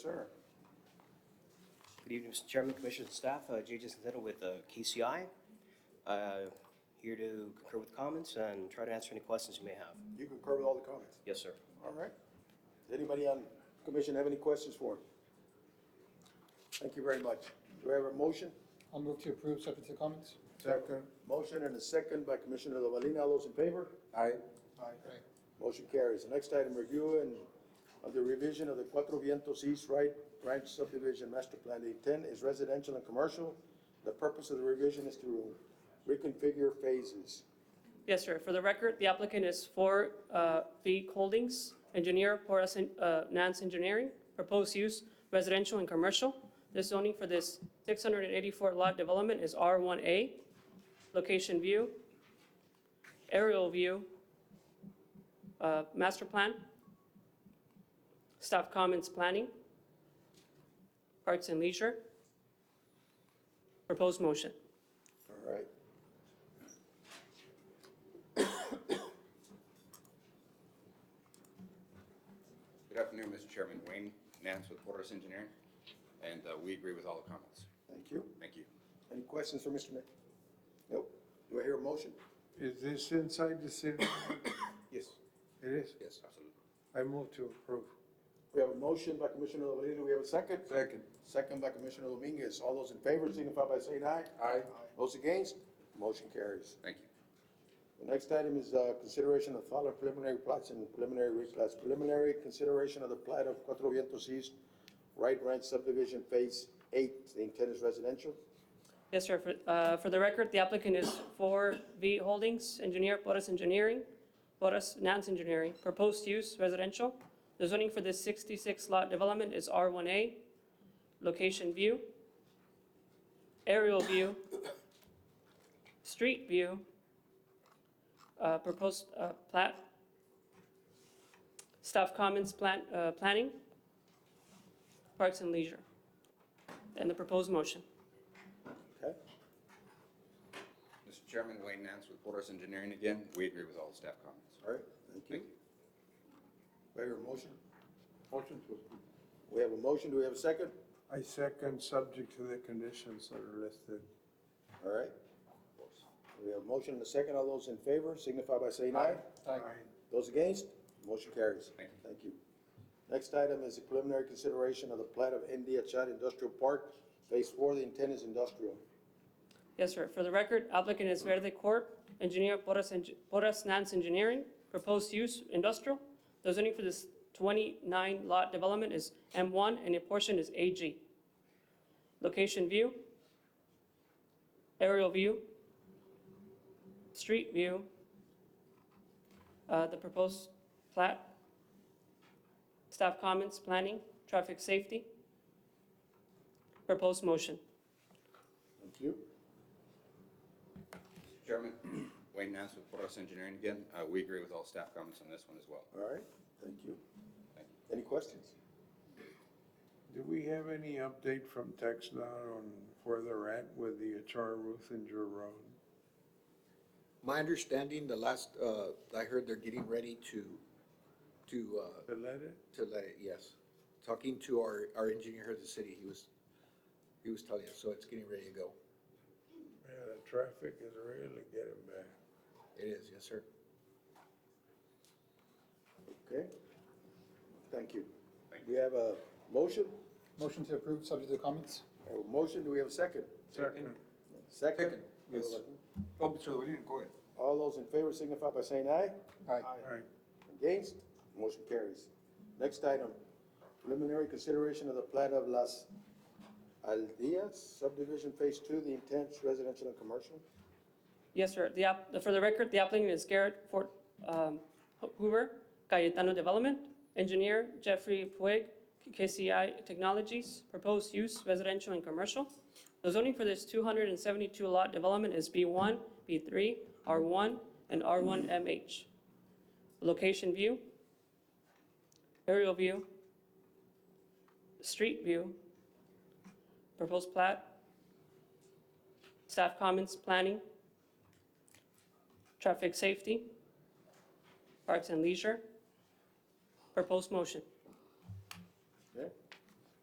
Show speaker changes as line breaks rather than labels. Sir. Good evening, Mr. Chairman, Commissioners, and staff. Uh, Jay Jason Zettel with uh, KCI. Uh, Here to concur with comments and try to answer any questions you may have.
You concur with all the comments?
Yes, sir.
All right. Does anybody on commission have any questions for him? Thank you very much. Do I have a motion?
I'll move to approve, subject to comments.
Second. Motion and a second by Commissioner Lovelina. All those in favor? Aye.
Aye.
Motion carries. The next item, review and of the revision of the Cuatro Vientos East Right Branch Subdivision Master Plan. The intent is residential and commercial. The purpose of the revision is to reconfigure phases.
Yes, sir. For the record, the applicant is for uh, V Holdings, engineer, Porras En- uh, Nance Engineering, proposed use residential and commercial. The zoning for this 684 lot development is R1A, location view, aerial view, uh, master plan, staff comments planning, parks and leisure, proposed motion.
All right.
Good afternoon, Mr. Chairman. Wayne Nance with Porter's Engineering, and uh, we agree with all the comments.
Thank you.
Thank you.
Any questions for Mr. Nick? Nope. Do I hear a motion?
Is this inside the city?
Yes.
It is.
Yes, absolutely.
I move to approve.
We have a motion by Commissioner Lovelina, we have a second? Second. Second by Commissioner Dominguez, all those in favor signify by saying aye. Aye. Those against, motion carries.
Thank you.
The next item is, uh, consideration of following preliminary plots and preliminary replats. Preliminary consideration of the plat of Cuatro Vientos East, Right Ranch subdivision phase eight, the intent is residential.
Yes, sir. For- uh, For the record, the applicant is 4V Holdings, engineer Porras Engineering, Porras Nance Engineering, proposed use residential. The zoning for this 66-lot development is R1A, location view, aerial view, street view, uh, proposed uh, plat, staff comments, plan- uh, planning, parks and leisure, and the proposed motion.
Okay,
Mr. Chairman, Wayne Nance with Porter's Engineering again. We agree with all the staff comments.
all right, thank you.
Thank you.
Do I hear a motion?
Motion to approve.
We have a motion, do we have a second?
I second, subject to the conditions that are listed.
All right. We have a motion and a second. All those in favor signify by saying aye.
Aye.
Those against, motion carries.
Thank you.
Thank you. Next item is the preliminary consideration of the plat of India Chad Industrial Park, Phase Four. The intent is industrial.
Yes, sir. For the record, applicant is Verde Corp., engineer Porras Eng- Porras Nance Engineering, proposed use industrial. The zoning for this 29-lot development is M1 and a portion is AG. Location view, aerial view, street view, uh, the proposed plat, staff comments, planning, traffic safety, proposed motion.
Thank you.
Mr. Chairman, Wayne Nance with Porter's Engineering again. Uh, We agree with all staff comments on this one as well.
All right, thank you.
Thank you.
Any questions?
Do we have any update from Tex Dot on where they're at with the HR Ruthinger Road?
My understanding, the last, uh, I heard they're getting ready to, to, uh,
To let it?
to let it, yes. Talking to our, our engineer here at the city, he was, he was telling us, so it's getting ready to go.
Man, the traffic is really getting bad.
It is, yes, sir.
Okay. Thank you.
Thank
We have a motion.
Motion to approve, subject to comments.
We have a motion. Do we have a second?
Second.
Second?
Yes.
Oh, so we didn't go ahead.
All those in favor signify by saying aye.
Aye.
Aye.
Against? Motion carries. Next item, preliminary consideration of the plat of Las Aldeas subdivision phase two, the intent residential and commercial.
Yes, sir. The app, for the record, the applicant is Garrett Fort, um, Hoover, Cayetano Development, engineer Jeffrey Puig, KCI Technologies, proposed use residential and commercial. The zoning for this two hundred and seventy-two lot development is B one, B three, R one, and R one MH. Location view, aerial view, street view, proposed plat, staff comments, planning, Traffic Safety, Parks and Leisure. Proposed motion.